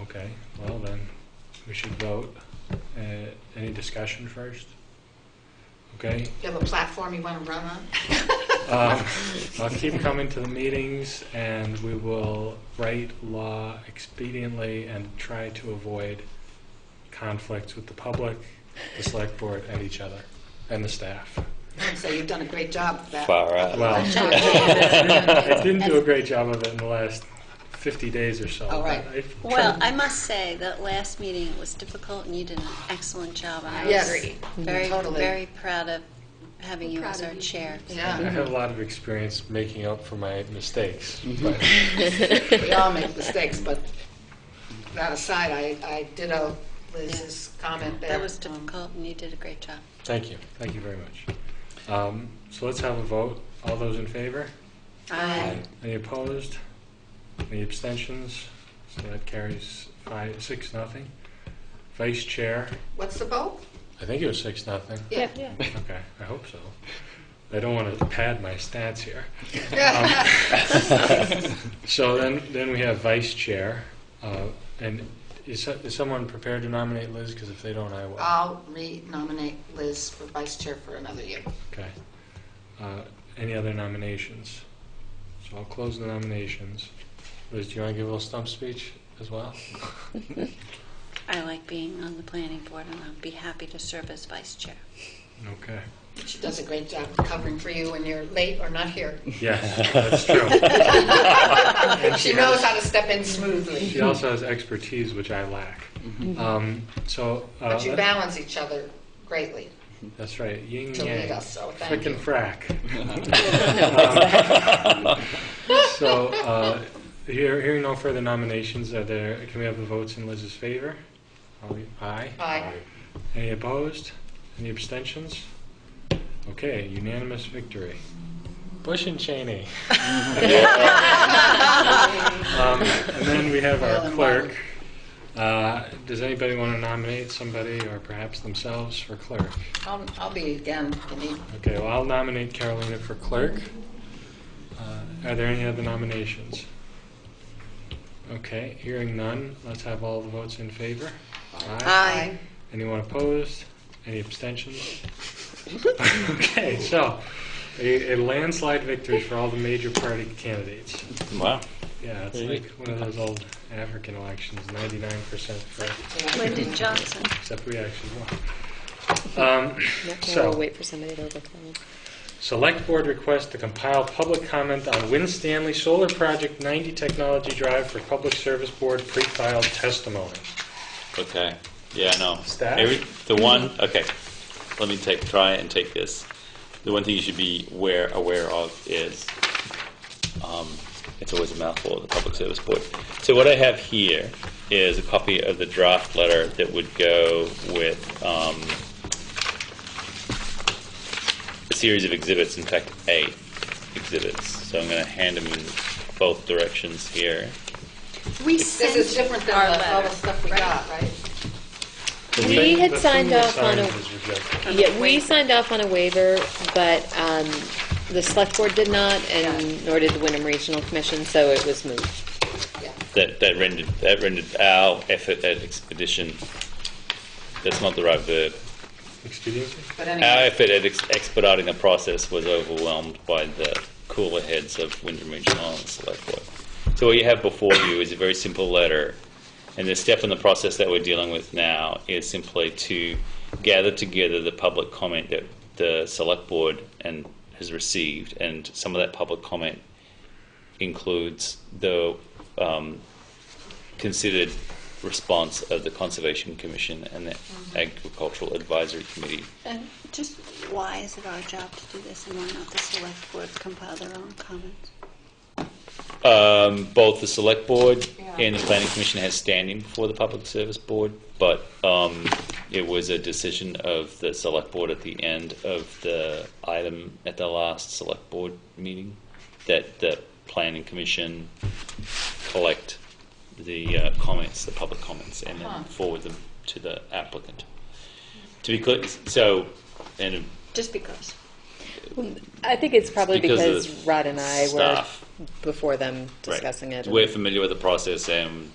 Okay, well then, we should vote. Uh, Any discussion first? Okay, You have a platform you want to run on? um, I'll keep coming to the meetings and we will write law expediently and try to avoid conflicts with the public, the select board, and each other, and the staff. So you've done a great job with that. Far out. Well, I didn't do a great job of it in the last 50 days or so. All right. but I've Well, tried- I must say, that last meeting was difficult, and you did an excellent job, and I Yes. Mm-hmm. was very, Totally. very proud of having you Proud as of our you. chair. I Yeah, have a lot of experience making up for my mistakes, Mm-hmm. but we all make mistakes, but that aside, I, I ditto Liz's comment there. That was difficult, and you did a great job. thank you, thank you very much. Um, So let's have a vote. All those in favor? Aye. Any opposed? Any abstentions? So that carries five, six, nothing. Vice Chair, What's the vote? I think it was six, nothing. Yeah. Okay, I hope so. I don't want to pad my stats here. So then, then we have vice chair, uh, and is, so- is someone prepared to nominate Liz? Because if they don't, I will. I'll re-nominate Liz for vice chair for another year. Okay. Uh, any other nominations? So I'll close the nominations. Liz, do you want to give a little stump speech as well? I like being on the planning board, and I'll be happy to serve as vice chair. Okay. She does a great job covering for you when you're late or not here. Yes, that's true. She knows how to step in smoothly, She also has expertise which I lack. Um, so uh, Mm-hmm. but you let- balance each other greatly that's right. Yin to lead yang. us, so thank Frick you. and frack. So, uh, hear- hearing no further nominations, are there, can we have the votes in Liz's favor? All in- Aye? Aye. Any opposed? Any abstentions? Okay, unanimous victory. Bush and Cheney. Um, And then we have Well our and clerk. Uh, Does anybody want to nominate somebody or perhaps themselves for clerk? I'll, I'll be again, if you need. Okay, well, I'll nominate Carolina for clerk. Uh, Are there any other nominations? Okay, hearing none, let's have all the votes in favor. Aye. Aye. Anyone opposed? Any abstentions? Okay, so, a a landslide victory for all the major party candidates. Wow. Yeah, it's Really? like one of those old African elections, 99% for, Mm-hmm. Lyndon Johnson. except we actually won. Um, So- We'll wait for somebody to overcome. Select Board request to compile public comment on Win Stanley Solar Project 90 Technology Drive for Public Service Board pre-filed testimony. Okay. Yeah, no. Staff? Every- the one. Okay. Let me take try and take this. The one thing you should be aware aware of is um, it's always a mouthful of the public service board. So what I have here is a copy of the draft letter that would go with um, a series of exhibits. In fact, eight exhibits. So I'm going to hand them in both directions here. We This is different than our the- all the letter, stuff we got, right? We We had signed off on The thing that a, was rejected. yeah, we signed off on a waiver, but um, the select board did not, and nor did the Wyndham Regional Commission, so it was moved. Yeah. that, that rendered that rendered our effort at expedition. That's not the right verb. Expediency? But Our anyway, effort at ex- expediting the process was overwhelmed by the cooler heads of Wyndham Regional and Select Board. So what you have before you is a very simple letter, and the step in the process that we're dealing with now is simply to gather together the public comment that the Select Board and has received, and some of that public comment includes the um, considered response of the Conservation Commission and the Agricultural Advisory Committee. And just why is it our job to do this, and why not the select board compile their own comments? Um, both the select board Yeah. and the planning commission has standing before the public service board, but um, it was a decision of the select board at the end of the item at the last select board meeting that the planning commission collect the uh, comments, the public comments, and Huh. then forward them to the applicant. To be clear, so, and Just because. I think it's probably Because of because Rod and I were staff. before them Right. discussing it. We're familiar with the process, and